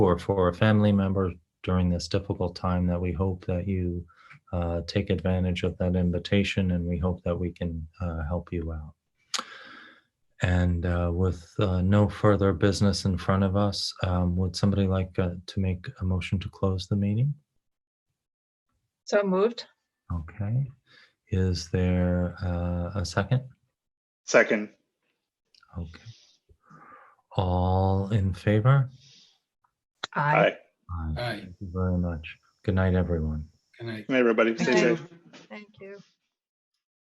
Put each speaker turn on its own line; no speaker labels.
for, for a family member during this difficult time that we hope that you uh, take advantage of that invitation and we hope that we can uh, help you out. And uh, with uh, no further business in front of us, um, would somebody like uh, to make a motion to close the meeting?
So moved.
Okay. Is there uh, a second?
Second,
Okay. All in favor?
Aye.
aye.
Aye.
Aye.
Thank you very much. Good night, everyone.
Good night.
Everybody, stay
Aye.
safe.
Thank you.